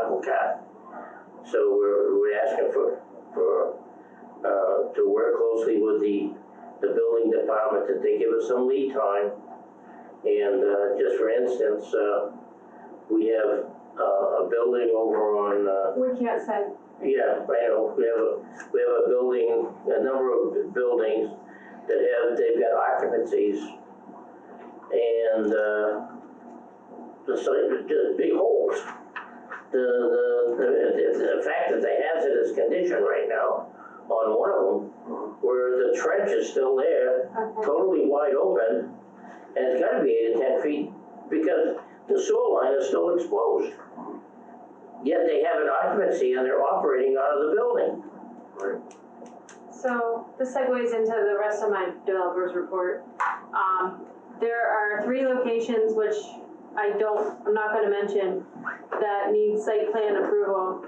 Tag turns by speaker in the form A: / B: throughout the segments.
A: apple cart. So we're, we're asking for, for, uh, to work closely with the, the building department that they give us some lead time. And, uh, just for instance, uh, we have, uh, a building over on, uh,
B: We can't say,
A: yeah, I know, we have a, we have a building, a number of buildings that have, they've got occupancies. And, uh, the site, the big holes. The, the, the, the fact that they have it as condition right now on one of them, where the trench is still there,
B: okay,
A: totally wide open, and it's gotta be eight to ten feet, because the sewer line is still exposed. Yet they have an occupancy and they're operating out of the building.
B: so this segues into the rest of my developer's report. Um, there are three locations which I don't, I'm not gonna mention, that need site plan approval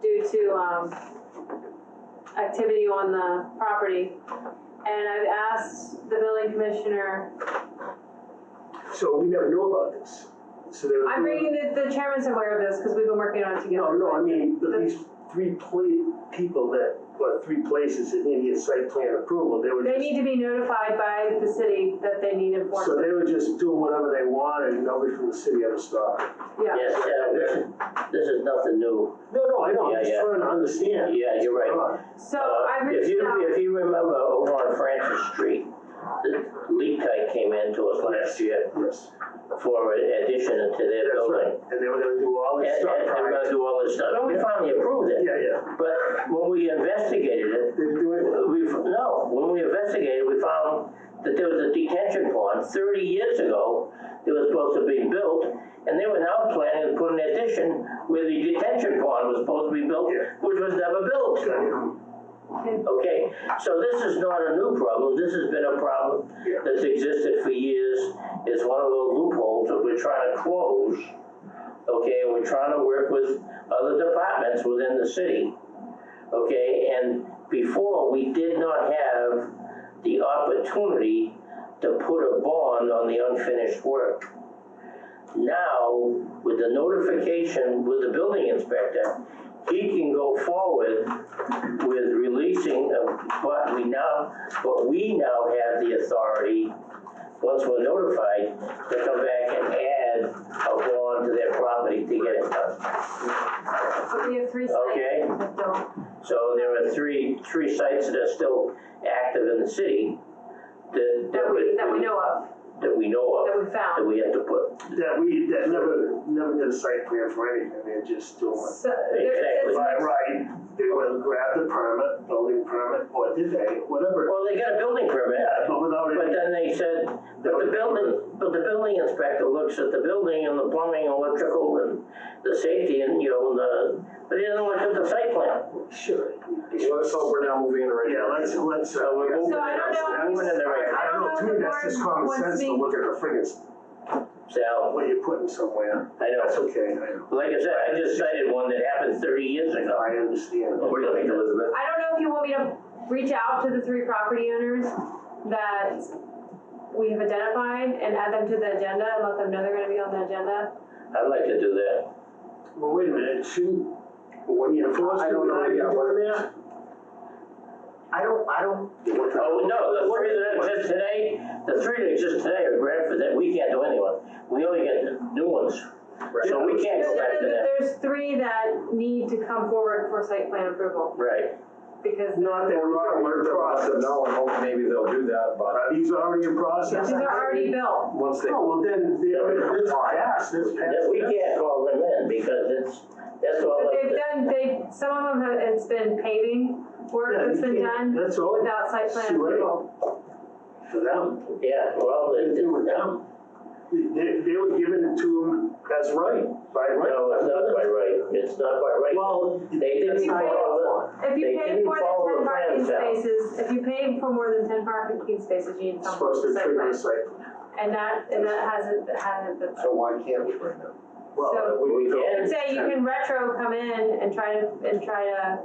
B: due to, um, activity on the property. And I've asked the building commissioner,
C: So we never knew about this. So they were.
B: I'm bringing, the, the chairman's aware of this, cause we've been working on it
C: No,
B: together.
C: no, I mean,
B: The-
C: but these three pla- people that, or three places that needed site plan approval, they were
B: They
C: just.
B: need to be notified by the city that they need
C: So
B: enforcement,
C: they were just doing whatever they wanted, and nobody from the city ever stopped.
B: yeah.
A: Yes, uh, this is, this is nothing new.
C: No, no, I know,
A: Yeah,
C: I'm just
A: yeah.
C: trying to understand.
A: Yeah, you're right.
C: Right.
B: So
A: Uh,
B: I've
A: If
B: reached
A: you,
B: out,
A: if you remember over on Francis Street, the leak pipe came in to us last year
C: Yes,
A: for an addition to their
C: that's right.
A: building.
C: And they were gonna do all
A: And,
C: this stuff.
A: and they're
C: right?
A: gonna do all this stuff. And we
C: Yeah.
A: finally approved it.
C: Yeah, yeah.
A: But when we investigated it,
C: They didn't do it.
A: We, no, when we investigated, we found that there was a detention pond thirty years ago that was supposed to be built, and they were now planning to put an addition where the detention pond was supposed to be built,
C: Yeah.
A: which was never built.
C: um,
A: Okay, so this is not a new problem, this has been a problem
C: Yeah.
A: that's existed for years. It's one of those loopholes that we're trying to close, okay, and we're trying to work with other departments within the city. Okay, and before, we did not have the opportunity to put a bond on the unfinished work. Now, with the notification with the building inspector, he can go forward with releasing of what we now, what we now have the authority, once we're notified, to come back and add a bond to their property to get it done.
B: but we have three
A: Okay.
B: sites that don't.
A: So there are three, three sites that are still active in the city that,
B: That we,
A: would-
B: that we know of,
A: That we know of,
B: that we
A: that
B: found.
A: we have to put.
C: That we, that never, never did a site plan for anything, they're just doing.
B: So there- it's
A: Exactly.
C: By
B: mixed-
C: right, they would grab the permit, building permit, or did they, whatever.
A: Well, they got a building permit,
C: Yeah, but without
A: but
C: it,
A: then they said, but the building, but the building inspector looks at the building and the plumbing, electrical and the safety and, you know, the, but he doesn't look at the site plan.
C: sure.
D: Well, let's hope we're now moving in the right
C: Yeah, let's,
D: direction.
C: let's. uh,
A: So we're moving
B: So I don't know if
A: we're moving in the right,
B: I don't know if
C: too,
B: the
C: that's just
B: board
C: common
B: wants
C: sense to
B: me-
C: look at the friggin',
A: so,
C: what you're putting somewhere.
A: I
C: That's
A: know,
C: okay, I know.
A: like I said, I just cited one that happened thirty years ago.
C: I understand.
D: What do you think, Elizabeth?
B: I don't know if you want me to reach out to the three property owners that we have identified and add them to the agenda and let them know they're gonna be on the agenda.
A: I'd like to do that.
C: Well, wait a minute, shouldn't, when you're forced to,
D: I don't know,
C: are you
D: yeah, what-
C: doing that? I don't, I don't.
A: Oh, no, the three that exist today, the three that exist today are Bradford, that we can't do anyone, we only get the new ones. So we can't
B: There's-
A: go back to that,
B: There's three that need to come forward for site plan approval
A: right,
B: because
C: Not that we're
D: Well,
C: not,
D: we're
C: we're in
D: gonna let
C: process.
D: them know and hope maybe they'll do that, but
C: Are these already in process?
B: these are already built.
D: once they.
C: Oh, well, then, they- it's passed, it's
A: that
C: passed.
A: we can't call them in, because it's, that's all.
B: But they've done, they, some of them have, it's been paving work
C: Yeah,
B: that's
C: you
B: been done
C: can't- That's all.
B: without site plan
C: See what-
B: approval.
C: For them,
A: Yeah, well,
C: they
A: it,
C: do with
A: no,
C: them. They, they were giving it to them as right, by right.
A: no, it's not by right, it's not by right,
C: Well.
A: they didn't
C: that's not
A: follow
B: If
A: They
B: you pay
A: didn't
B: more
A: follow
B: than
A: the
B: ten parking
A: plans out.
B: spaces, if you pay for more than ten parking spaces, you need
C: It's
B: some
C: Supposed to
B: site
C: trigger a
B: plan.
C: site.
B: And that, and that hasn't, hasn't been.
D: So why can't we right now?
B: So-
C: Well,
A: the, we
C: we go,
B: I'd
A: can,
B: say you can retro come in and try to, and try to,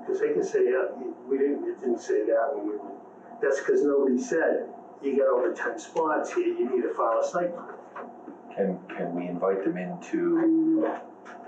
C: because they can say, yeah, we didn't, it didn't say that when we, went. that's because nobody said, you got over ten spots here, you need to file a site. plan."
E: Can, can we invite them into